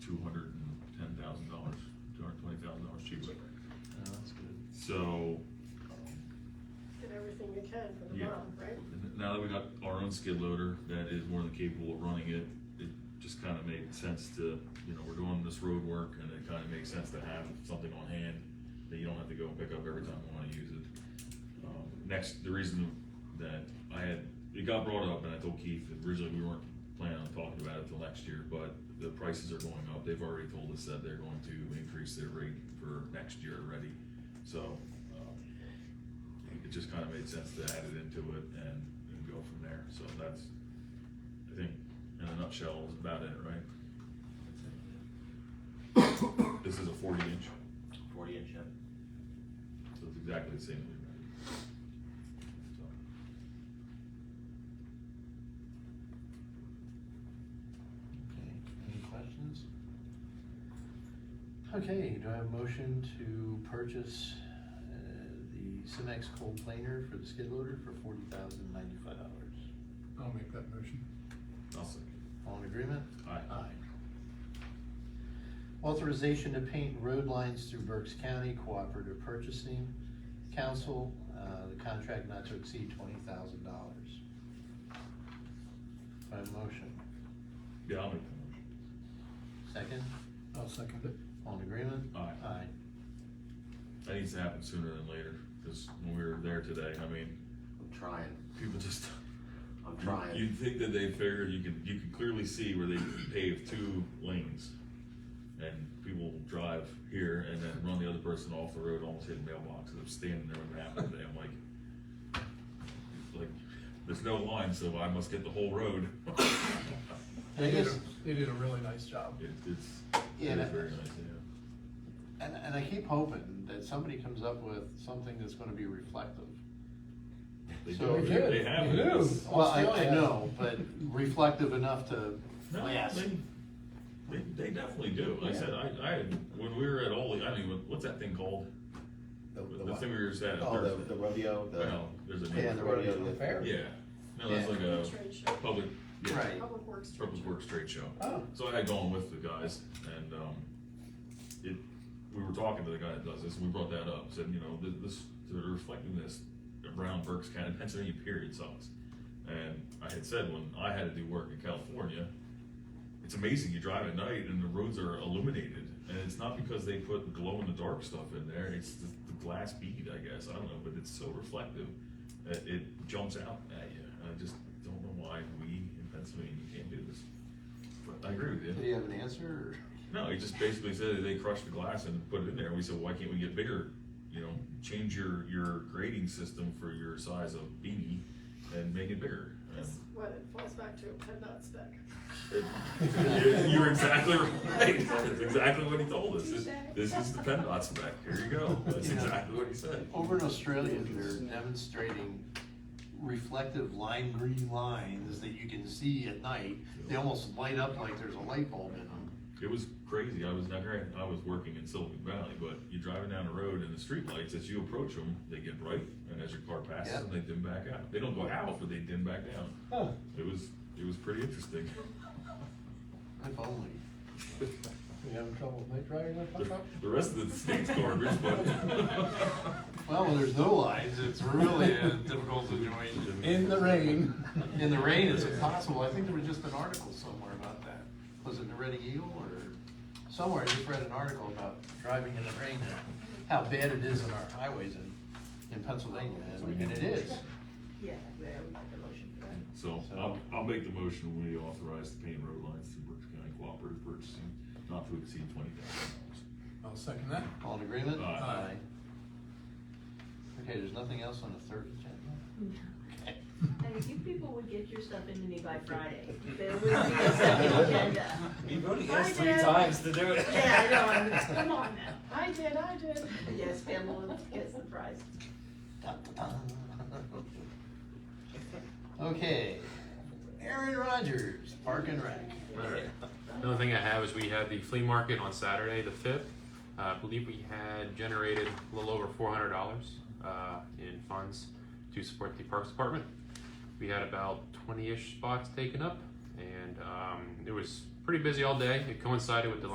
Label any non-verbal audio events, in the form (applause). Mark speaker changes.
Speaker 1: Oh,
Speaker 2: done for the
Speaker 3: Yeah.
Speaker 2: month, right?
Speaker 3: N- Now that we got our own skid loader that is more than capable of running it, it just kinda made sense to, you know, we're doing this road work and it kinda makes sense to have something on hand that you don't have to go and pick up every time you wanna use it. Um, Next, the reason that I had, it got brought up and I told Keith, that originally we weren't planning on talking about it till next year, but the prices are going up. They've already told us that they're going to increase their rate for next year already. So, um, it just kind of made sense to add it into it and, and go from there, so that's, I think, in a nutshell, is about it, right? This is a forty inch,
Speaker 4: Forty inch, yeah.
Speaker 3: so it's exactly the same. as we ran.
Speaker 1: Okay, any questions? Okay, do I have a motion to purchase uh, the Cimex cold planer for the skid loader for forty thousand ninety-five dollars?
Speaker 5: I'll make that motion.
Speaker 3: So, I'll second.
Speaker 1: All in agreement?
Speaker 3: Aye.
Speaker 1: Authorization to paint road lines through Berks County Cooperative Purchasing Council, uh, the contract not to exceed twenty thousand dollars. By motion,
Speaker 3: Yeah, I'll make the
Speaker 1: second,
Speaker 5: I'll second it.
Speaker 1: all in agreement?
Speaker 3: Aye.
Speaker 1: Aye.
Speaker 3: motion. That needs to happen sooner than later, because when we were there today, I mean,
Speaker 4: I'm trying,
Speaker 3: people just.
Speaker 4: I'm
Speaker 3: you-
Speaker 4: trying.
Speaker 3: You'd think that they figured, you could, you could clearly see where they paved two lanes. And people drive here and then run the other person off the road, almost hit the mailbox, and I'm standing there when it happened today, I'm like. Like, there's no line, so I must get the whole road.
Speaker 1: I
Speaker 5: They did,
Speaker 1: guess-
Speaker 5: a- they did a really nice job.
Speaker 3: It, it's, it
Speaker 1: Yeah,
Speaker 3: is
Speaker 1: that-
Speaker 3: very nice, yeah.
Speaker 1: And, and I keep hoping that somebody comes up with something that's gonna be reflective.
Speaker 3: They
Speaker 1: So-
Speaker 3: do,
Speaker 1: They
Speaker 3: they-
Speaker 5: did,
Speaker 3: they have.
Speaker 5: they
Speaker 3: it.
Speaker 5: do.
Speaker 3: It's-
Speaker 1: Well, I, I
Speaker 5: Australia.
Speaker 1: know, (laughs) but reflective enough to,
Speaker 3: No,
Speaker 4: Yes.
Speaker 3: they, they, they definitely do. Like I said, I, I, when we were at Ole, I mean, what- what's that thing called? The
Speaker 4: what?
Speaker 3: thing we were just at.
Speaker 4: Oh, the,
Speaker 3: Thursday.
Speaker 4: the rodeo, the.
Speaker 3: Well, there's a.
Speaker 1: Yeah, the rodeo.
Speaker 4: the-
Speaker 5: Fair.
Speaker 3: Yeah, no, that's
Speaker 1: Yeah.
Speaker 3: like a
Speaker 2: Trade show.
Speaker 3: public, yeah,
Speaker 1: Right.
Speaker 2: Public Works. trade
Speaker 3: public
Speaker 2: show.
Speaker 3: works trade show.
Speaker 5: Oh.
Speaker 3: So I had gone with the guys and, um, it, we were talking to the guy that does this, and we brought that up, said, you know, th- this, they're reflecting this around Berks County, Pennsylvania period sucks. And I had said when I had to do work in California, it's amazing, you drive at night and the roads are illuminated, and it's not because they put glow-in-the-dark stuff in there, it's the, the glass bead, I guess, I don't know, but it's so reflective, that it jumps out at you, and I just don't know why we in Pennsylvania can't do this. But I agree with
Speaker 1: do you have an answer?
Speaker 3: no, he just basically said that they crushed the glass and put it in there. We said, why can't we get bigger? You know, change your, your grading system for your size of beanie and make it bigger. And
Speaker 2: That's what it falls back to, PennDOT spec.
Speaker 3: it- (laughs) You're exactly
Speaker 2: (laughs)
Speaker 3: right. That's exactly what he told us. This- This is the PennDOT spec. Here you go. That's
Speaker 1: Yeah.
Speaker 3: exactly what he said.
Speaker 1: Over in Australia, they're demonstrating reflective lime green lines that you can see at night. They almost light up like there's a light bulb in them.
Speaker 3: It was crazy. I was not great. I was working in Silicon Valley, but you're driving down the road and the streetlights, as you approach them, they get bright. And as your car passes
Speaker 1: Yeah.
Speaker 3: them, they dim back out. They don't go out, but they dim back down.
Speaker 5: Huh.
Speaker 3: It was, it was pretty interesting.
Speaker 1: If only.
Speaker 5: You having trouble with night driving that
Speaker 3: The
Speaker 5: pickup?
Speaker 3: the rest of the state's garbage, but.
Speaker 1: (laughs) Well, when there's no lines, it's really a (laughs) difficult situation.
Speaker 5: In the rain.
Speaker 1: In the rain, it's impossible. I think there was just an article somewhere about that. Was it the Reading Eagle or somewhere? I just read an article about driving in the rain and how bad it is on our highways in, in Pennsylvania, and and it is.
Speaker 2: Yeah, yeah, we make a motion for that.
Speaker 3: So I'll, I'll make the motion when we authorize the paint road lines through Berks County Cooperative Purchasing, not to exceed twenty thousand
Speaker 5: I'll second that.
Speaker 1: All in agreement?
Speaker 3: Aye.
Speaker 1: Okay, there's nothing else on the third agenda?
Speaker 6: And you people would get your stuff into me by
Speaker 5: (laughs)
Speaker 6: Friday. There would be a second agenda.
Speaker 7: You've already
Speaker 2: Hi,
Speaker 7: asked three
Speaker 2: Dad.
Speaker 7: times to do it.
Speaker 6: Yeah, I know, I'm- come on now.
Speaker 2: I did, I did.
Speaker 6: Yes, Pamela
Speaker 2: (laughs)
Speaker 6: gets the prize.
Speaker 1: Okay, Aaron Rodgers, Park and Rec.
Speaker 8: Alright. Another thing I have is we had the flea market on Saturday, the fifth. Uh, I believe we had generated a little over four hundred dollars, uh, in funds to support the Parks Department. We had about twenty-ish spots taken up and, um, it was pretty busy all day. It coincided with the